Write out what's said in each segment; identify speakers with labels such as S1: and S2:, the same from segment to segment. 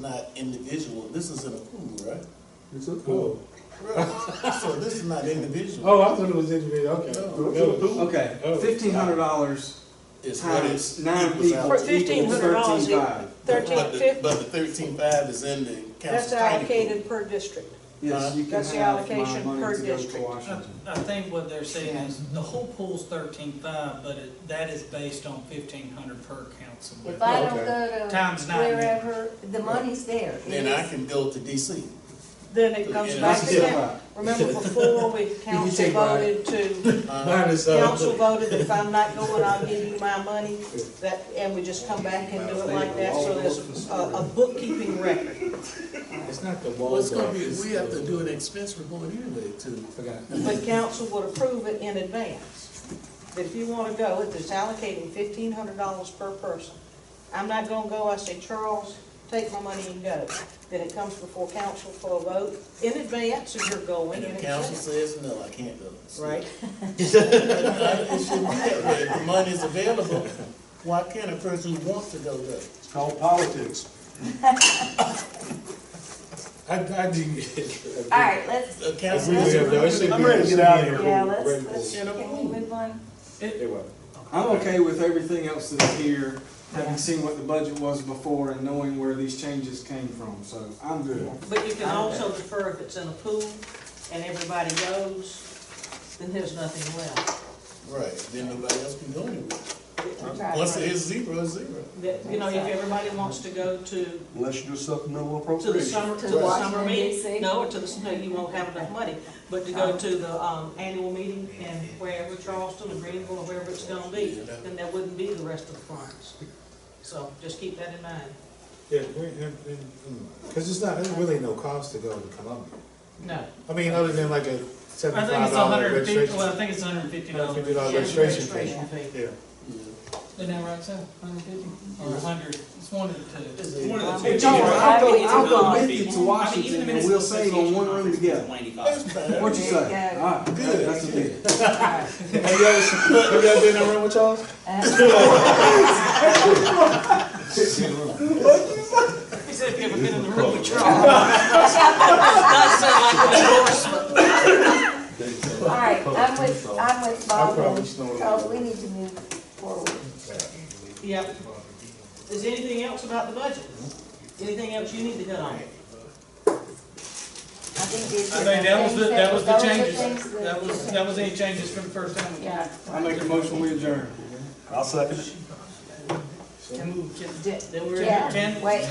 S1: not individual, this is an approval, right?
S2: It's a pool.
S1: Right. So this is not individual.
S2: Oh, I thought it was individual, okay.
S1: No.
S2: Village.
S3: Okay,
S2: Oh.
S3: fifteen hundred dollars
S1: It's what it's.
S3: times nine
S1: equals
S3: people
S1: out.
S4: For
S3: equals thirteen
S4: $1,500
S3: five.
S1: But the-
S4: 1350,
S1: But the thirteen five is in the council.
S4: that's allocated per district.
S3: Yes, you can
S4: That's the
S3: have my
S4: allocation per
S3: money to go to
S4: district.
S5: I
S3: Washington.
S5: I think what they're saying is, the whole pool's thirteen-five, but it- that is based on fifteen hundred per council.
S6: If I don't
S2: Okay.
S6: go to
S5: Times nine.
S6: wherever, the money's there. It
S1: Then I
S6: is-
S1: can go to DC.
S4: Then it comes
S1: Yeah.
S4: back
S3: That's
S4: to
S3: still
S4: them.
S3: high.
S4: Remember before, we, council
S3: take mine.
S4: voted to,
S1: Uh,
S2: Mine is, uh,
S4: council voted, if I'm not going, I'll give you my money, that, and we just come back and do it like that, so there's a, a bookkeeping record.
S2: It's not the
S1: Well,
S2: wall.
S1: it's gonna be, we have to do an expense report anyway to.
S2: Forgot.
S4: But council would approve it in advance. That if you want to go, if it's allocating fifteen hundred dollars per person, I'm not gonna go, I say, Charles, take my money and go. Then it comes before council for a vote in advance if you're going
S1: And
S4: in
S1: if council
S4: advance.
S1: says no, I can't go.
S4: Right?
S1: It shouldn't be that way. If the money's available, why can't a person who wants to go go?
S3: It's called politics.
S2: I, I didn't get it.
S6: All right, let's,
S1: A
S2: I
S1: council.
S2: agree with you. though. It should
S1: I'm
S2: be-
S1: ready to
S2: it should
S1: get out of
S2: be
S1: here.
S6: yeah,
S2: approved.
S6: let's, let's,
S2: Grateful.
S6: can we move on?
S2: It was.
S3: I'm okay with everything else that's here, having seen what the budget was before and knowing where these changes came from, so I'm good.
S4: But you can also defer if it's in a pool and everybody goes, then there's nothing left.
S1: Right, then nobody else can go anywhere.
S6: Right,
S1: Once
S6: right.
S1: it is zero, it's zero.
S4: That, you know, if everybody wants to go to
S7: Unless you do supplemental
S4: To the
S7: appropriation.
S4: summer, to
S6: To
S4: the summer
S6: Washington, D.C.?
S4: meeting, no, or to the, no, you won't have enough money, but to go to the, um, annual meeting and wherever Charleston or Greenville or wherever it's gonna be, then there wouldn't be the rest of the funds. So just keep that in mind.
S2: Yeah, we, and, and, because it's not, there's really no cost to go to Columbia.
S5: No.
S2: I mean, other than like a
S5: I think
S2: seventy-five
S5: it's
S2: dollar
S5: hundred and fifty,
S2: registration.
S5: well, I think it's hundred and fifty dollars.
S2: $150 registration fee. Yeah.
S5: Isn't that right, Sam? Hundred and fifty? Or a hundred, it's one of the two.
S3: Hey, John, I'll go, I'll go with you
S8: I
S3: to
S8: mean,
S3: Washington and we'll save on one room together.
S1: That's fine.
S3: What you say?
S6: There you go.
S3: Alright, that- that's a deal.
S2: Have you ever, have you ever been in a room with Charles?
S6: Uh,
S5: He said if you ever been in the room with Charles. That sound like an endorsement.
S6: All right, I'm with, I'm with
S2: I
S6: Bob,
S2: probably snore.
S6: because we need to move forward.
S4: Yep. Is there anything else about the budget? Anything else you need to hit on?
S6: I think these
S5: I
S6: are
S5: think that was the,
S6: things
S5: that was the
S6: those are
S5: changes.
S6: things
S5: That was, that was any changes from the first time.
S6: Yeah.
S3: I make a motion, we adjourn.
S7: I'll second it.
S6: Di-
S5: Then we're
S6: Yeah,
S5: in ten.
S6: wait,
S4: We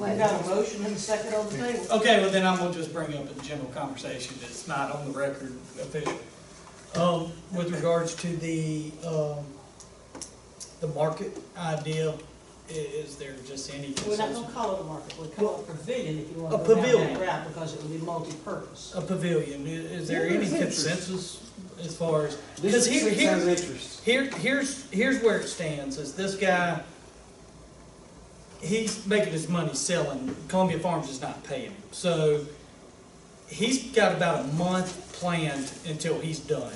S6: wait.
S4: got a motion and a second on the table.
S5: Okay, well then I'm gonna just bring up a general conversation that's not on the record official. Um, with regards to the, um, the market idea, i- is there just any
S4: We're not
S5: consensus?
S4: gonna call it a market, we'll call it a pavilion if you wanna
S5: A
S4: go down that
S5: pavilion.
S4: route, because it would be multi-purpose.
S5: A pavilion, i- is there any consensus as far as,
S3: This
S5: because here,
S3: six
S5: here.
S3: has interest.
S5: Here, here's, here's where it stands, is this guy, he's making his money selling, Columbia Farms is not paying him. So he's got about a month planned until he's done.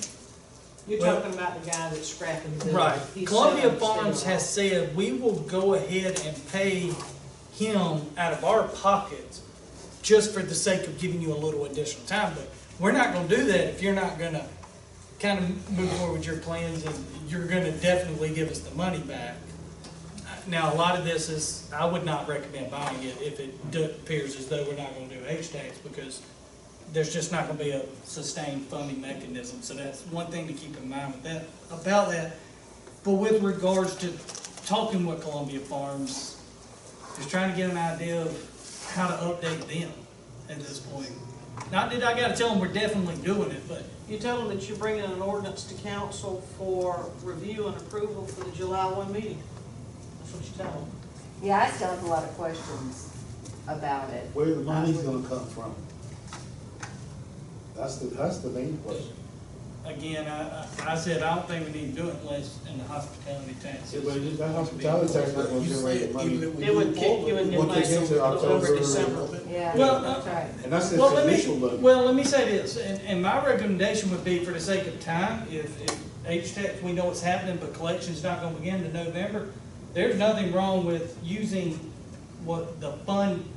S4: You're
S5: Well-
S4: talking about the guy that's scrapping the.
S5: Right,
S4: he's
S5: Columbia
S4: selling the
S5: Farms
S4: steel.
S5: has said, we will go ahead and pay him out of our pockets just for the sake of giving you a little additional time, but we're not gonna do that if you're not gonna kind of move forward with your plans and you're gonna definitely give us the money back. Now, a lot of this is, I would not recommend buying it if it do- appears as though we're not gonna do H-Tax because there's just not gonna be a sustained funding mechanism, so that's one thing to keep in mind with that, about that. But with regards to talking with Columbia Farms, just trying to get an idea of how to update them at this point. Not that I gotta tell them we're definitely doing it, but
S4: You tell them that you're bringing an ordinance to council for review and approval for the July one meeting. That's what you tell them.
S6: Yeah, I still have a lot of questions about it.
S7: Where the money's gonna come from? That's the, that's the main question.
S5: again, I, I, I said, I don't think we need to do it unless in the hospitality tax.
S2: Yeah, but that hospitality tax is not gonna
S1: You said
S2: generate the
S1: even
S2: money.
S1: if we
S4: It would
S1: move
S4: kick you
S1: forward,
S4: in the
S2: Once
S4: legs
S2: they get to
S4: November,
S2: October.
S4: December.
S6: Yeah,
S5: Well, uh,
S6: that's right.
S2: And that's
S5: Well,
S2: just
S5: let me-
S2: initial look.
S5: Well, let me say this, and, and my recommendation would be for the sake of time, if, if H-Tech, we know what's happening, but collection's not gonna begin to November, there's nothing wrong with using what the fund